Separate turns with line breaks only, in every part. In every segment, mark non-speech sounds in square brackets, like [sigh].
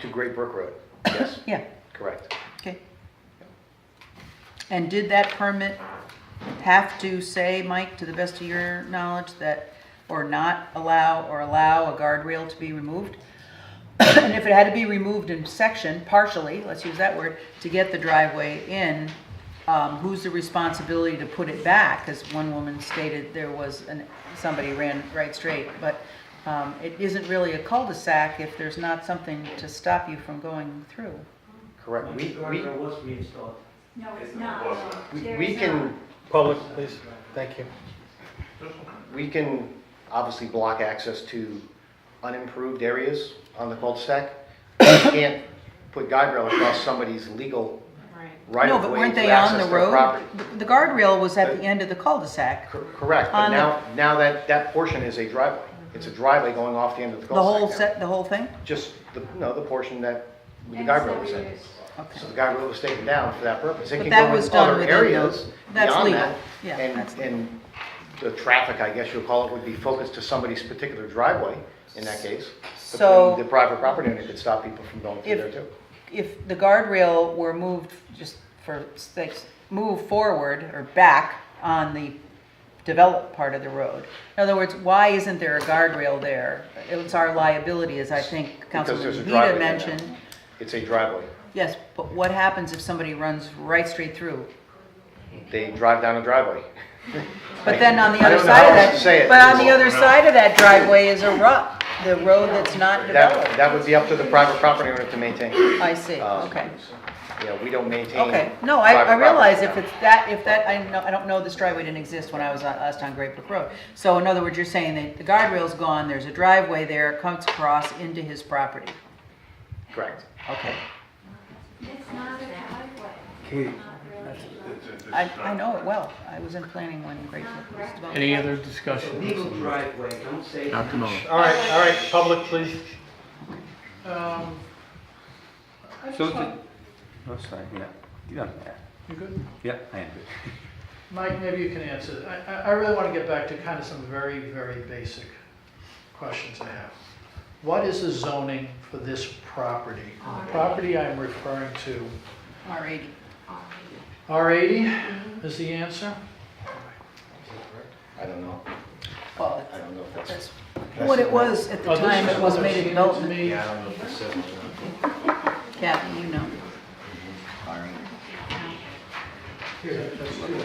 To Great Brook
[coughs]
Road, yes,
Yeah,
correct.
okay. And did that permit have to say, Mike, to the best of your knowledge, that, or not allow, or allow a guardrail to be removed? [coughs] And if it had to be removed in section, partially, let's use that word, to get the driveway in, um, who's the responsibility to put it back? Because one woman stated there was an, somebody ran right straight, but, um, it isn't really a cul-de-sac if there's not something to stop you from going through.
Correct. We, we,
Guardrail was reinstalled.
No, it's not.
we-
There
we
is
can,
not.
Public, please, thank you.
we can obviously block access to unimproved areas on the cul-de-sac. We can't put guardrail across somebody's legal right
No,
of
but
way
weren't
to
they on
access
the
their
road?
property.
The- The guardrail was at the end of the cul-de-sac.
Cor- Correct, but
On the-
now, now that, that portion is a driveway. It's a driveway going off the end of the
The whole
cul-de-sac now.
set, the whole thing?
Just the, no, the portion that the
And
guardrail was
so
in.
it is.
Okay.
So the guy was taken down for that purpose. It
But
can
that
go
was
in
done
other
within
areas
those- that's
beyond
legal.
that.
Yeah, that's
And,
legal.
and the traffic, I guess you'll call it, would be focused to somebody's particular driveway in that case. But
So-
then The private property owner could stop people from going through
If-
there too.
If the guardrail were moved, just for sakes, move forward or back on the developed part of the road. In other words, why isn't there a guardrail there? It's our liability, as I think Councilman
there's a driveway there
Vida
now.
mentioned.
It's a driveway.
Yes, but what happens if somebody runs right straight through?
They drive down a driveway.
But then on the
I
other
don't know
side
how
of
else to say
that,
it.
but on the other side of that driveway is a rut, the road that's not developed.
That, that would be up to the private property owner to maintain. You
I see,
Um,
okay,
know, we don't maintain.
okay. No, I, I
private
realize if
property.
it's that, if that, I know, I don't know this driveway didn't exist when I was on, last on Great Brook Road. So in other words, you're saying that the guardrail's gone, there's a driveway there, comes across into his property.
Correct.
Okay,
It's not a driveway.
Katie,
Not really.
I, I know it well. I was in planning when Great Brook was developed.
Any other
it's a
discussion?
legal driveway, don't say.
Dr. Muller?
All right, all right, public, please.
So, did- oh, sorry, yeah, yeah,
You good?
yeah, I am.
Mike, maybe you can answer. I, I- I really want to get back to kind of some very, very basic questions I have. What is the zoning for this property? And The property I'm referring to,
All right.
R80
Mm-hmm.
is the answer?
I don't know.
Well,
I don't know if that's.
that's what it was at the
Well, Oh, this
time,
Oh, is
it was
what
made a
seemed to
development.
me-
I don't know if that's.
Kathy, you know.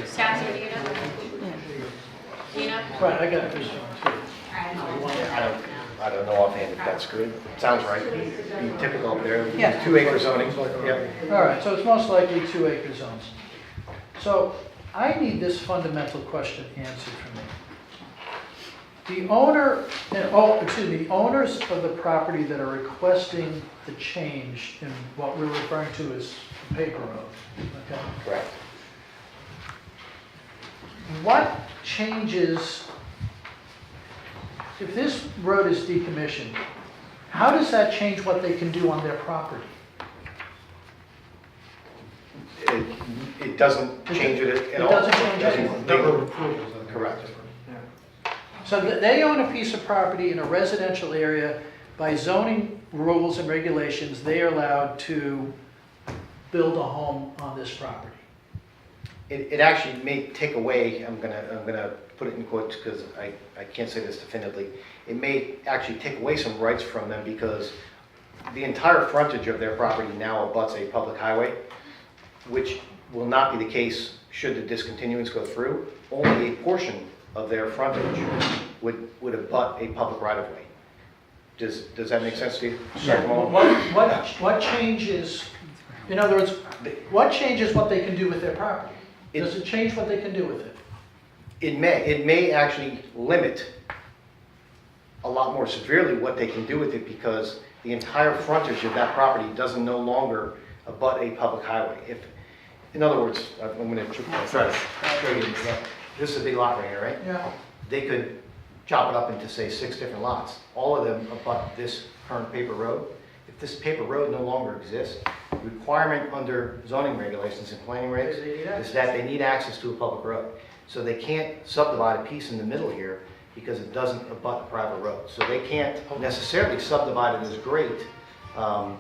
Scott, so do you know?
Yeah.
Do you know?
Right, I got this one too.
I don't know.
I don't, I don't know offhand if that's good. Sounds right. Be typical up there.
Yeah.
Two acre zoning. Yep.
All right, so it's most likely two acre zones. So I need this fundamental question answered for me. The owner, and, oh, excuse me, the owners of the property that are requesting the change in what we're referring to as the paper road, okay?
Correct.
What changes, if this road is decommissioned, how does that change what they can do on their property?
It, it doesn't change it at-
It
at all.
doesn't change anything.
Number of Correct.
So th- they own a piece of property in a residential area. By zoning rules and regulations, they are allowed to build a home on this property.
It, it actually may take away, I'm gonna, I'm gonna put it in quotes because I, I can't say this definitively. It may actually take away some rights from them because the entire frontage of their property now abuts a public highway, which will not be the case should the discontinuance go through. Only a portion of their frontage would, would abut a public right of way. Does, does that make sense to you? Dr.
What,
Mullin?
what, what changes, in other words, what changes what they can do with their property? Does it change what they can do with it?
It may, it may actually limit a lot more severely what they can do with it because the entire frontage of that property doesn't no longer abut a public highway. If, in other words, I'm gonna tr- try to show you an example. This is a big lot right here, right?
Yeah.
They could chop it up into, say, six different lots. All of them abut this current paper road. If this paper road no longer exists, the requirement under zoning regulations and planning regs
They need access.
is that they need access to a public road. So they can't subdivide a piece in the middle here because it doesn't abut a private road. So they can't necessarily subdivide it as great, um,